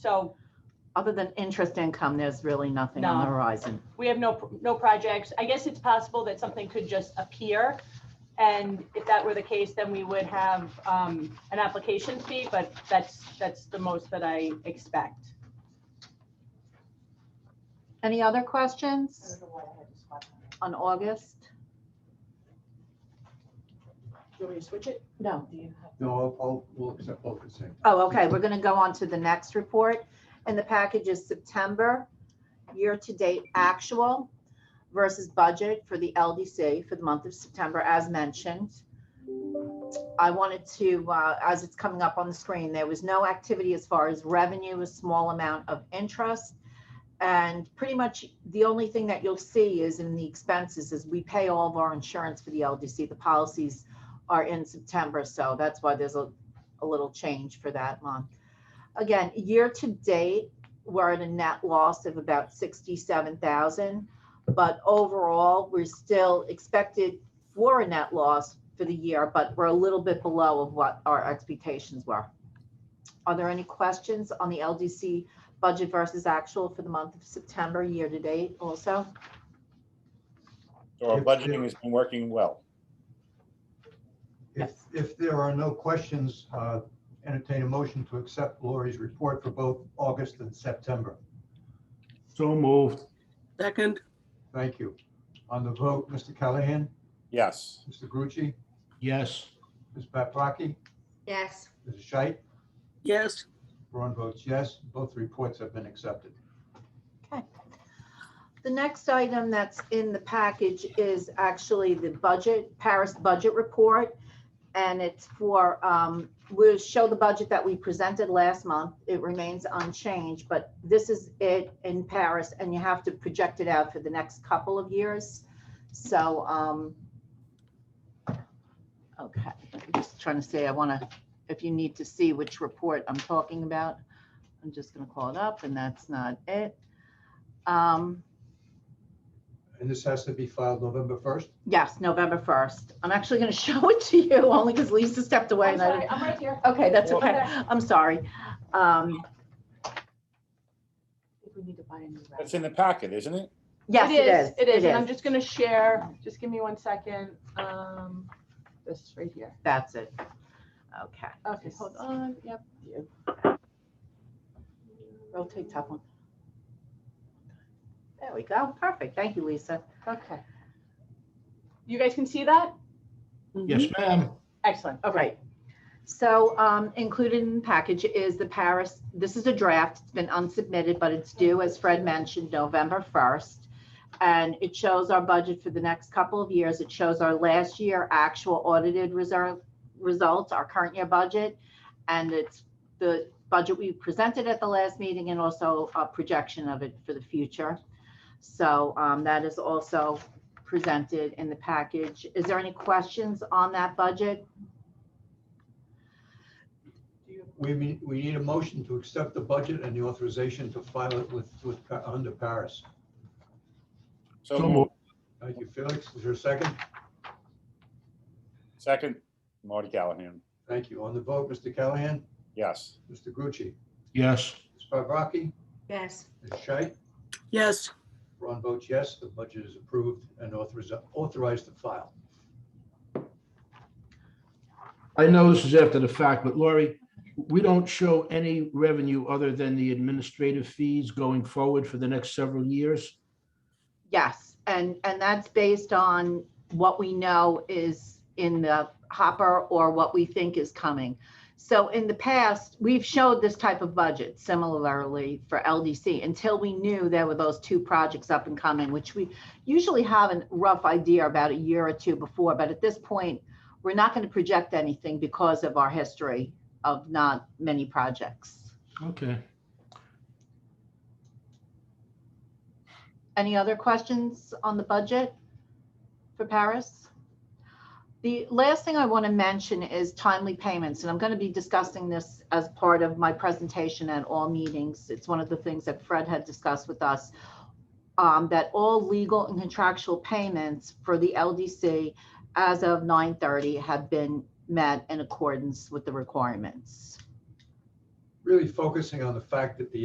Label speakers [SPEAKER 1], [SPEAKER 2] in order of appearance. [SPEAKER 1] So
[SPEAKER 2] Other than interest income, there's really nothing on the
[SPEAKER 1] No.
[SPEAKER 2] horizon.
[SPEAKER 1] we have no, no projects. I guess it's possible that something could just appear. And if that were the case, then we would have um, an application fee, but that's, that's the most that I expect.
[SPEAKER 2] Any other questions on August?
[SPEAKER 3] Do you want me to switch it?
[SPEAKER 2] No.
[SPEAKER 3] Do you have?
[SPEAKER 4] No, I'll- I'll, we'll accept both consent.
[SPEAKER 2] Oh, okay, we're going to go on to the next report. And the package is September year-to-date actual versus budget for the LDC for the month of September, as mentioned. I wanted to, uh, as it's coming up on the screen, there was no activity as far as revenue, a small amount of interest. And pretty much the only thing that you'll see is in the expenses is we pay all of our insurance for the LDC. The policies are in September, so that's why there's a a little change for that month. Again, year to date, we're at a net loss of about sixty-seven thousand. But overall, we're still expected for a net loss for the year, but we're a little bit below of what our expectations were. Are there any questions on the LDC budget versus actual for the month of September, year to date also?
[SPEAKER 5] So our
[SPEAKER 4] Yes,
[SPEAKER 5] budgeting
[SPEAKER 4] yeah.
[SPEAKER 5] has been working well.
[SPEAKER 4] If, if there are no questions, uh, entertain a motion to accept Lori's report for both August and September.
[SPEAKER 6] So moved.
[SPEAKER 7] Second,
[SPEAKER 4] Thank you. On the vote, Mr. Callahan,
[SPEAKER 5] Yes,
[SPEAKER 4] Mr. Grucci,
[SPEAKER 6] Yes.
[SPEAKER 4] Ms. Paprocki,
[SPEAKER 2] Yes.
[SPEAKER 4] Mrs. Scheit,
[SPEAKER 7] yes,
[SPEAKER 4] Ron votes yes. Both reports have been accepted.
[SPEAKER 2] The next item that's in the package is actually the budget, Paris budget report. And it's for, um, we'll show the budget that we presented last month. It remains unchanged, but this is it in Paris and you have to project it out for the next couple of years. So, um, okay, I'm just trying to say, I want to, if you need to see which report I'm talking about, I'm just going to call it up and that's not it. Um,
[SPEAKER 4] And this has to be filed November 1st?
[SPEAKER 2] Yes, November 1st. I'm actually going to show it to you only because Lisa stepped away.
[SPEAKER 1] I'm
[SPEAKER 2] and I
[SPEAKER 1] sorry,
[SPEAKER 2] didn't-
[SPEAKER 1] I'm right here.
[SPEAKER 2] Okay, that's
[SPEAKER 1] Well-
[SPEAKER 2] okay. I'm sorry. Um,
[SPEAKER 3] If we need to buy a new
[SPEAKER 5] that's in the packet, isn't it?
[SPEAKER 2] Yes, it
[SPEAKER 1] It
[SPEAKER 2] is.
[SPEAKER 1] is, and I'm just gonna share, just give me one second. Um, This right here.
[SPEAKER 2] That's it. Okay.
[SPEAKER 1] Okay, hold on, yep.
[SPEAKER 2] Rotate top one. There we go. Perfect. Thank you, Lisa.
[SPEAKER 1] Okay. You guys can see that?
[SPEAKER 6] Yes, ma'am.
[SPEAKER 1] Excellent,
[SPEAKER 2] All right. So um, included in the package is the Paris, this is a draft, it's been unsubmitted, but it's due, as Fred mentioned, November 1st. And it shows our budget for the next couple of years. It shows our last year actual audited reserve results, our current year budget. And it's the budget we presented at the last meeting and also a projection of it for the future. So um, that is also presented in the package. Is there any questions on that budget?
[SPEAKER 4] We, mean- we need a motion to accept the budget and the authorization to file it with, with, Pa- under Paris.
[SPEAKER 5] So
[SPEAKER 6] So
[SPEAKER 5] moved.
[SPEAKER 6] moved.
[SPEAKER 4] Thank you, Felix. Is there a second?
[SPEAKER 5] Second, Marty Callahan,
[SPEAKER 4] Thank you. On the vote, Mr. Callahan,
[SPEAKER 5] yes.
[SPEAKER 4] Mr. Grucci,
[SPEAKER 6] Yes.
[SPEAKER 4] Ms. Paprocki,
[SPEAKER 2] Yes.
[SPEAKER 4] Ms. Scheit,
[SPEAKER 7] yes,
[SPEAKER 4] Ron votes yes, the budget is approved and authorized, authorized to file.
[SPEAKER 6] I know this is after the fact, but Lori, we don't show any revenue other than the administrative fees going forward for the next several years.
[SPEAKER 2] Yes, and, and that's based on what we know is in the hopper or what we think is coming. So in the past, we've showed this type of budget similarly for LDC until we knew there were those two projects up and coming, which we usually have a rough idea about a year or two before. But at this point, we're not going to project anything because of our history of not many projects.
[SPEAKER 6] Okay.
[SPEAKER 2] Any other questions on the budget for Paris? The last thing I want to mention is timely payments, and I'm going to be discussing this as part of my presentation at all meetings. It's one of the things that Fred had discussed with us, um, that all legal and contractual payments for the LDC as of 9:30 have been met in accordance with the requirements.
[SPEAKER 4] really focusing on the fact that the